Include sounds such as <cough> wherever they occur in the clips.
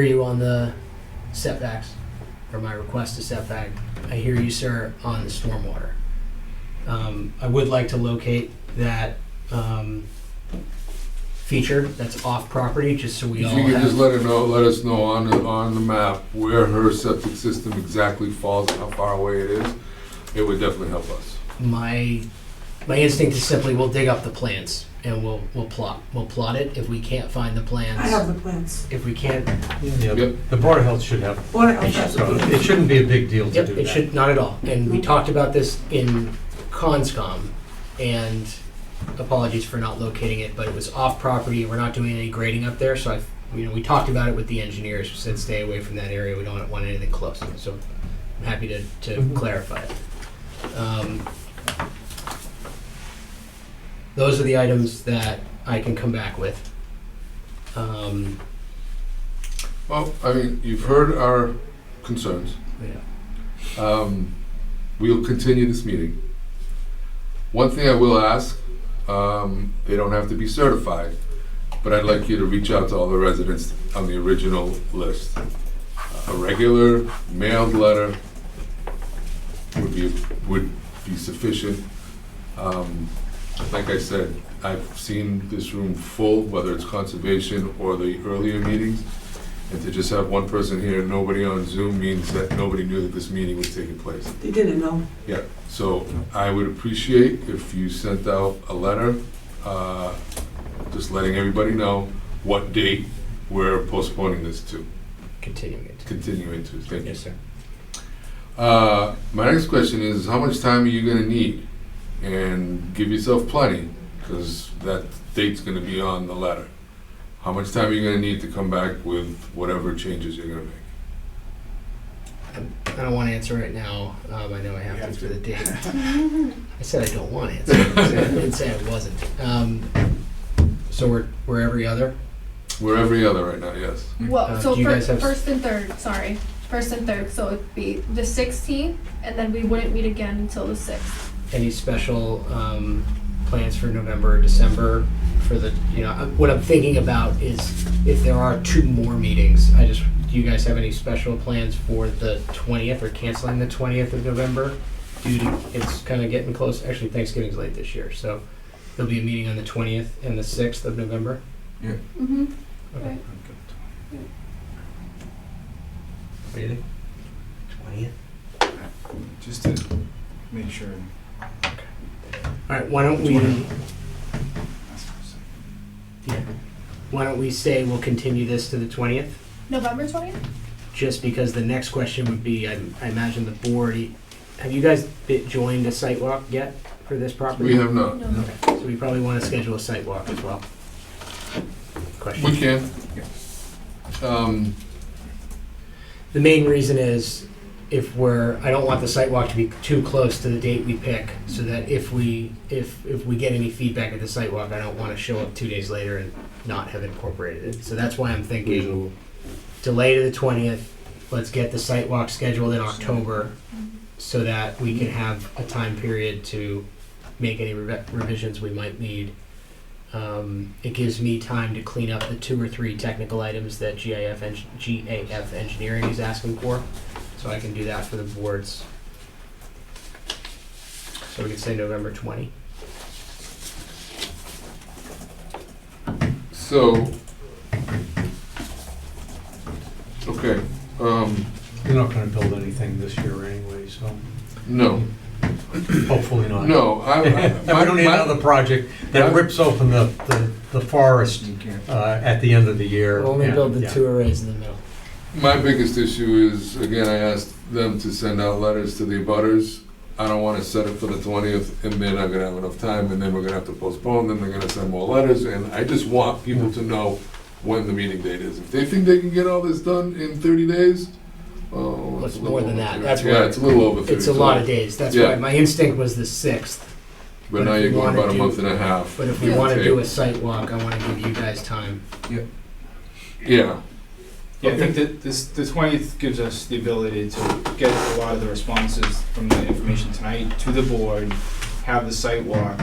hear you on the setbacks, or my request to setback. I hear you, sir, on the stormwater. Um, I would like to locate that, um, feature that's off property, just so we If all you could just have. let her know, let us know on the, on the map where her septic system exactly falls, and how far away it is, it would definitely help us. My, my instinct is simply, we'll dig up the plans and we'll, we'll plot, we'll plot it. If we can't find the I have plans, the plans. if we can't, Yep. Yeah, the Board of Health should have, Board of so Health. it shouldn't be a big deal to Yep, do it that. should, not at all. And we Mhm. talked about this in CONSCOM, and apologies for not locating it, but it was off property, we're not doing any grading up there, so I, you know, we talked about it with the engineers, we said stay away from that area, we don't want anything close, so I'm happy to, to Mhm. clarify it. Um, Those are the items that I can come back with. Um, Well, I mean, you've heard our concerns. yeah. Um, We'll continue this meeting. One thing I will ask, um, they don't have to be certified, but I'd like you to reach out to all the residents on the original list. A regular mailed letter would be, would be sufficient. Um, Like I said, I've seen this room full, whether it's conservation or the earlier meetings. And to just have one person here, and nobody on Zoom means that nobody knew that this meeting was taking place. They didn't know. Yeah, so I would appreciate if you sent out a letter, uh, just letting everybody know what date we're postponing this to, Continuing it. continuing to, thank you. Yes, sir. Uh, My next question is, how much time are you gonna need? And give yourself plenty, because that date's gonna be on the letter. How much time are you gonna need to come back with whatever changes you're gonna make? I don't want to answer right now. Um, I know I have to for the date. <laughs> I said I don't want to answer. I didn't say I wasn't. Um, so we're, we're every other. We're every other right now, yes. Uh, Well, so do you fir- guys have- first and third, sorry, first and third. So it'd be the 16th, and then we wouldn't meet again until the 6th. Any special um, plans for November or December for the, you know, I'm- what I'm thinking about is if there are two more meetings, I just, do you guys have any special plans for the 20th or canceling the 20th of November? Due to, it's kind of getting close. Actually, Thanksgiving's late this year, so there'll be a meeting on the 20th and the 6th of November. Mm-hmm. Okay. Right. Really? 20th? Just to make sure. All right, why don't we, why don't we say we'll continue this to the 20th? November 20th. Just because the next question would be, I I imagine the board, have you guys been- joined a site walk yet for this property? We have not. No. So we probably want to schedule a site walk as well. We Question. can. Um, The main reason is if we're, I don't want the site walk to be too close to the date we pick, so that if we, if, if we get any feedback at the site walk, I don't want to show up two days later and not have incorporated it. So that's why I'm thinking delay to the twentieth. Let's get the site walk scheduled in October so that we can have a time period to make any revi- revisions we might need. Um, it gives me time to clean up the two or three technical items that GIF eng- GAF engineering is asking for, so I can do that for the boards. So we can say November twenty. so, okay, um, You're not gonna build anything this year anyway, so no, hopefully not. no, I, I. <laughs> And we don't need my- another project that my- rips open the, the, the forest, uh, at the end of the year. We'll only and- build the yeah. two arrays in the middle. My biggest issue is, again, I asked them to send out letters to the abutters. I don't wanna set it for the twentieth, and they're not gonna have enough time, and then we're gonna have to postpone, then they're gonna send more letters, and I just want people to know when the meeting date is. If they think they can get all this done in thirty days, oh. Well, it's a more little than over that. 30. That's Yeah, where- it's a little over thirty. It's a lot of days, that's Yeah. why, my instinct was the sixth. But now you're going about a month and a half. But if we Yeah. want to Okay. do a site walk, I want to give you guys time. Yeah, Yeah, I think that this, the twentieth gives us the ability to get a lot of the responses from the information tonight to the board, have the site walk,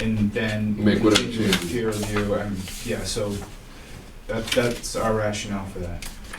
and then. Make whatever continue with changes. Peer review, and, yeah, so that, that's our rationale for that.